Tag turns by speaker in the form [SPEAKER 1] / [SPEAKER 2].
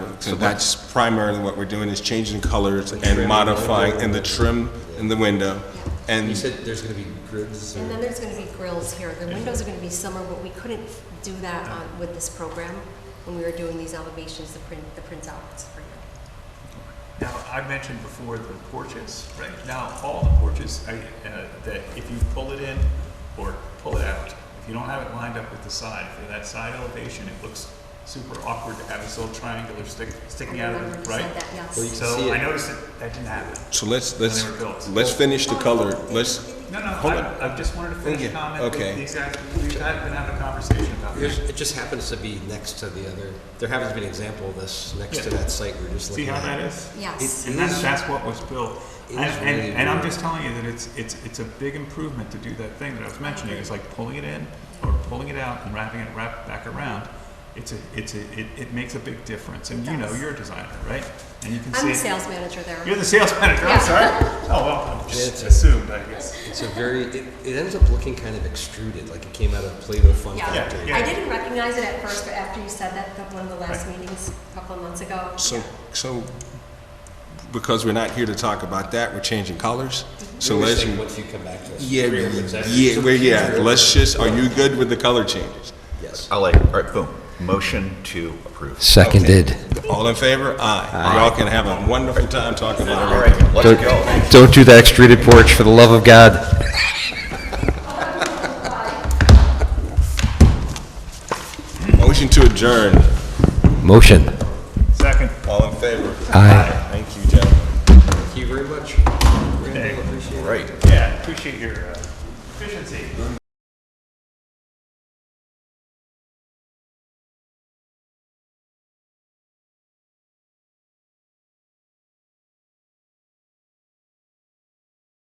[SPEAKER 1] So that's primarily what we're doing, is changing colors and modifying, and the trim in the window.
[SPEAKER 2] You
[SPEAKER 1] And
[SPEAKER 2] said there's gonna be grids
[SPEAKER 3] And
[SPEAKER 2] or,
[SPEAKER 3] then there's gonna be grills here, the windows are gonna be summer, but we couldn't do that on, with this program when we were doing these elevations, the print, the printouts for you.
[SPEAKER 4] Now, I mentioned before the porches, right? Now, all the porches, I, uh, that if you pull it in or pull it out, if you don't have it lined up with the side, for that side elevation, it looks super awkward to have this little triangular stick, sticking out of
[SPEAKER 3] Remember
[SPEAKER 4] it,
[SPEAKER 3] you said
[SPEAKER 4] right?
[SPEAKER 3] that, yes.
[SPEAKER 2] Well, you can see
[SPEAKER 4] So I
[SPEAKER 2] it.
[SPEAKER 4] noticed that that didn't happen.
[SPEAKER 1] so let's, let's,
[SPEAKER 4] were built.
[SPEAKER 1] let's finish the color, let's,
[SPEAKER 4] No, no,
[SPEAKER 1] Hold on.
[SPEAKER 4] I, I just wanted to finish
[SPEAKER 1] Okay,
[SPEAKER 4] a comment. that
[SPEAKER 1] okay.
[SPEAKER 4] These guys, we've had, been having a conversation about
[SPEAKER 2] There's-
[SPEAKER 4] this.
[SPEAKER 2] it just happens to be next to the other, there happens to be an example of this next to
[SPEAKER 4] Yeah.
[SPEAKER 2] that site we we're just
[SPEAKER 4] See
[SPEAKER 2] looking
[SPEAKER 4] how
[SPEAKER 2] at.
[SPEAKER 4] that is?
[SPEAKER 3] Yes.
[SPEAKER 4] And that's, that's what was built.
[SPEAKER 2] It
[SPEAKER 4] And,
[SPEAKER 2] is really
[SPEAKER 4] and, and I'm
[SPEAKER 2] weird.
[SPEAKER 4] just telling you that it's, it's, it's a big improvement to do that thing that I was mentioning, it's like pulling it in or pulling it out and wrapping it, wrap back around. It's a, it's a, it, it makes a big difference, and you know,
[SPEAKER 3] does.
[SPEAKER 4] you're a designer, right? And you can
[SPEAKER 3] I'm the
[SPEAKER 4] see,
[SPEAKER 3] sales manager there.
[SPEAKER 4] you're the sales manager,
[SPEAKER 3] Yeah.
[SPEAKER 4] I'm sorry. Oh, well, I just
[SPEAKER 2] It's a-
[SPEAKER 4] assumed, I guess.
[SPEAKER 2] It's a very, it, it ends up looking kind of extruded, like it came out of Play-Doh fun
[SPEAKER 3] Yeah,
[SPEAKER 2] factory.
[SPEAKER 4] yeah.
[SPEAKER 3] I didn't recognize it at first, but after you said that, the one of the last meetings a couple of months ago.
[SPEAKER 1] so, so, because we're not here to talk about that, we're changing colors. So
[SPEAKER 2] Really
[SPEAKER 1] let's,
[SPEAKER 2] think once you come back to us.
[SPEAKER 1] yeah,
[SPEAKER 2] three of us, that's-
[SPEAKER 1] yeah, well, yeah, let's just, are you good with the color changes?
[SPEAKER 2] Yes.
[SPEAKER 5] I like, all right, boom. Motion to approve.
[SPEAKER 6] Seconded.
[SPEAKER 1] All in favor? Aye. Y'all can have a wonderful time talking about
[SPEAKER 5] All
[SPEAKER 1] everything.
[SPEAKER 5] right,
[SPEAKER 6] Don't-
[SPEAKER 5] let's go.
[SPEAKER 6] Don't do that extruded porch, for the love of God.
[SPEAKER 1] Motion to adjourn.
[SPEAKER 6] Motion.
[SPEAKER 4] Second.
[SPEAKER 1] All in favor?
[SPEAKER 6] Aye.
[SPEAKER 1] Thank you, gentlemen.
[SPEAKER 2] Thank you very much. Randall, appreciate it.
[SPEAKER 5] All right.
[SPEAKER 4] Yeah, appreciate your uh, efficiency.